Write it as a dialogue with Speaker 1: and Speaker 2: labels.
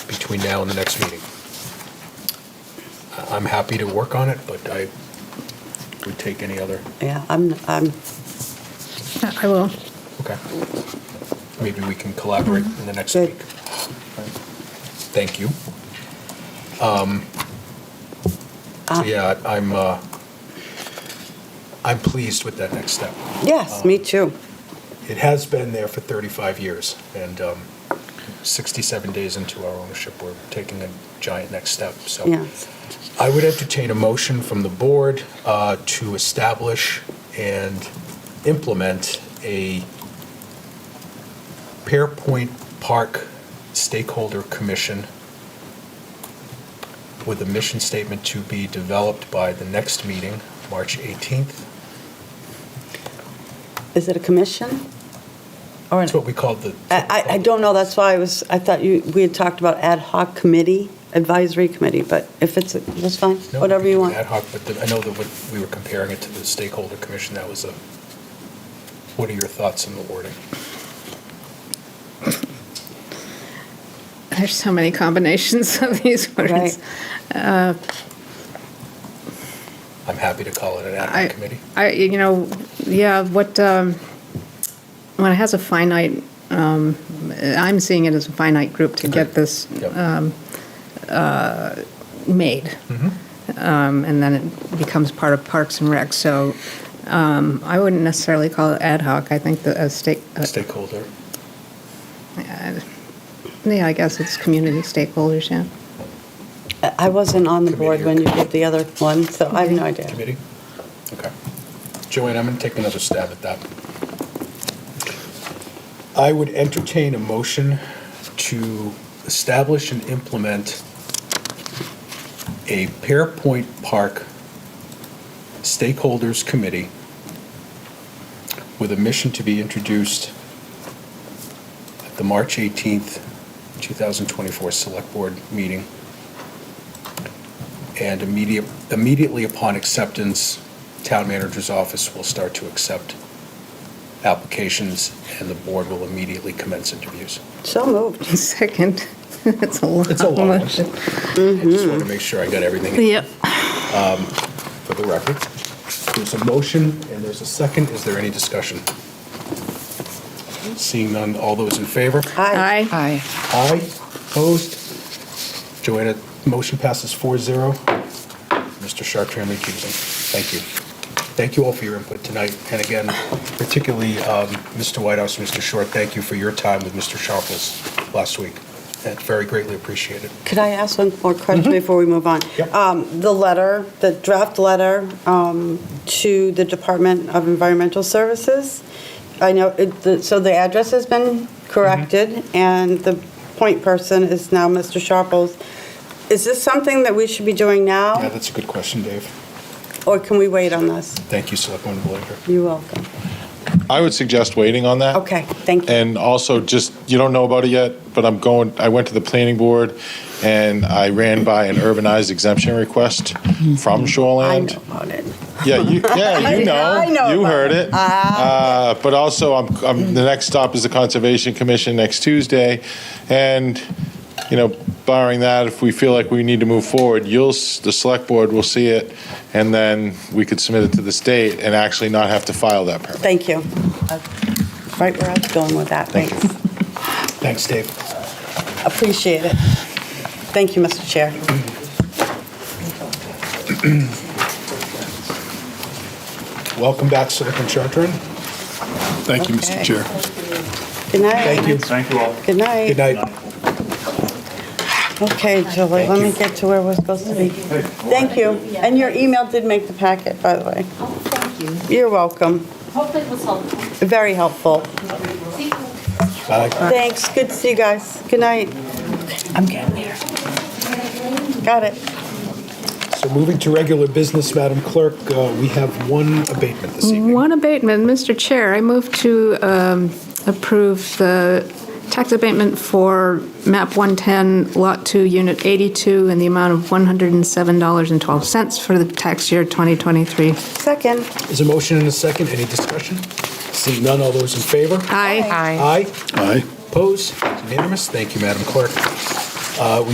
Speaker 1: between now and the next meeting. I- I'm happy to work on it, but I would take any other,
Speaker 2: Yeah, I'm, I'm,
Speaker 3: I will.
Speaker 1: okay. Maybe we can collaborate in the next
Speaker 2: Good.
Speaker 1: week. Thank you. Um, So yeah, I- I'm, uh, I'm pleased with that next step.
Speaker 2: yes,
Speaker 1: Um,
Speaker 2: me too.
Speaker 1: It has been there for 35 years, and um, 67 days into our ownership, we're taking a giant next step, so.
Speaker 2: Yes.
Speaker 1: I would entertain a motion from the board uh, to establish and implement a Pearpoint Park Stakeholder Commission with a mission statement to be developed by the next meeting, March 18th.
Speaker 2: Is it a commission? Or, an-
Speaker 1: That's what we called the.
Speaker 2: I, I- I don't know, that's why I was, I thought you, we had talked about ad hoc committee, advisory committee, but if it's, that's fine,
Speaker 1: No, we
Speaker 2: whatever
Speaker 1: could
Speaker 2: you
Speaker 1: do
Speaker 2: want.
Speaker 1: Ad hoc, but the- I know that when we were comparing it to the stakeholder commission, that was a, what are your thoughts on the wording?
Speaker 3: There's so many combinations of these
Speaker 2: Right.
Speaker 3: words.
Speaker 1: I'm happy to call it an ad
Speaker 3: I-
Speaker 1: hoc committee.
Speaker 3: I, you know, yeah, what, um, when it has a finite, um, I'm seeing it as a finite group to
Speaker 1: Agreed.
Speaker 3: get this uh,
Speaker 1: Yep.
Speaker 3: made.
Speaker 1: Mm-hmm.
Speaker 3: Um, And then it becomes part of Parks and Rec. So um, I wouldn't necessarily call it ad hoc. I think the, a uh, stake, a
Speaker 1: Stakeholder,
Speaker 3: Yeah, I guess it's community stakeholders, yeah.
Speaker 2: I I wasn't on the board when you did the other one, so I have no idea.
Speaker 1: committee? Okay. Joanne, I'm going to take another stab at that. I would entertain a motion to establish and implement a Pearpoint Park Stakeholders Committee with a mission to be introduced at the March 18th, 2024 Select Board meeting and immediate, immediately upon acceptance, town manager's office will start to accept applications, and the board will immediately commence interviews.
Speaker 2: So moved.
Speaker 3: Second, it's a long
Speaker 1: It's a long one. I
Speaker 3: motion.
Speaker 1: just want to make sure I got everything
Speaker 3: Yep.
Speaker 1: for the record. There's a motion and there's a second. Is there any discussion? Seeing none, all those in favor?
Speaker 2: Aye.
Speaker 3: Aye.
Speaker 4: Aye.
Speaker 1: Aye. Opposed? Joanna, motion passes 4-0. Mr. Chartran recusing. Thank you. Thank you all for your input tonight. And again, particularly um, Mr. Whitehouse, and Mr. Short, thank you for your time with Mr. Sharpless last week. That's very greatly appreciated.
Speaker 2: Could I ask one more question before we move on?
Speaker 1: Mm-hmm. Yep.
Speaker 2: Um, The letter, the draft letter um, to the Department of Environmental Services, I know, it- the- so the address has been corrected,
Speaker 1: Mm-hmm.
Speaker 2: and the point person is now Mr. Sharples. Is this something that we should be doing
Speaker 1: Yeah,
Speaker 2: now,
Speaker 1: that's a good question, Dave.
Speaker 2: or can we wait on this?
Speaker 1: Thank you, Selectwoman Belanger.
Speaker 2: You're welcome.
Speaker 5: I would suggest waiting on that.
Speaker 2: Okay, thank you.
Speaker 5: And also, just, you don't know about it yet, but I'm going, I went to the planning board and I ran by an urbanized exemption request from
Speaker 2: Mm-hmm. I
Speaker 1: um,
Speaker 5: Shoreland.
Speaker 2: know about it.
Speaker 5: Yeah, you, yeah, you know,
Speaker 2: I know
Speaker 5: you
Speaker 2: about Ah.
Speaker 5: heard it. Uh, but also, I'm, I'm, the next stop is the Conservation Commission next Tuesday, and you know, barring that, if we feel like we need to move forward, you'll s- the select board will see it, and then we could submit it to the state and actually not have to file that permit.
Speaker 2: Thank you. That's Right where I was going with that,
Speaker 5: Thank you.
Speaker 1: Thanks,
Speaker 2: thanks.
Speaker 1: Dave.
Speaker 2: Appreciate it. Thank you, Mr. Chair.
Speaker 1: Welcome back, Selectman Chartran.
Speaker 6: Thank you, Mr.
Speaker 2: Okay.
Speaker 6: Chair.
Speaker 2: Good night.
Speaker 1: Thank you.
Speaker 6: Thank you all.
Speaker 2: Good night.
Speaker 1: Good night.
Speaker 2: Okay, Julie, let me get to where we're supposed to be. Thank you. And your email did make the packet, by the way.
Speaker 7: Oh, thank you.
Speaker 2: You're welcome.
Speaker 7: Hopefully it was helpful.
Speaker 2: Very helpful.
Speaker 7: Thank you.
Speaker 1: Bye.
Speaker 2: Thanks. Good to see you guys. Good night. I'm getting there. Got it.
Speaker 1: So moving to regular business, Madam Clerk, uh, we have one abatement this evening.
Speaker 3: One abatement, Mr. Chair, I move to um, approve the tax abatement for MAP 110, Lot 2, Unit 82, in the amount of $107.12 for the tax year 2023.
Speaker 2: Second.
Speaker 1: There's a motion and a second. Any discussion? Seeing none, all those in favor?
Speaker 3: Aye.
Speaker 4: Aye.
Speaker 1: Aye.
Speaker 6: Aye.
Speaker 1: Opposed? It's Unanimous? Thank you, Madam Clerk. Uh, we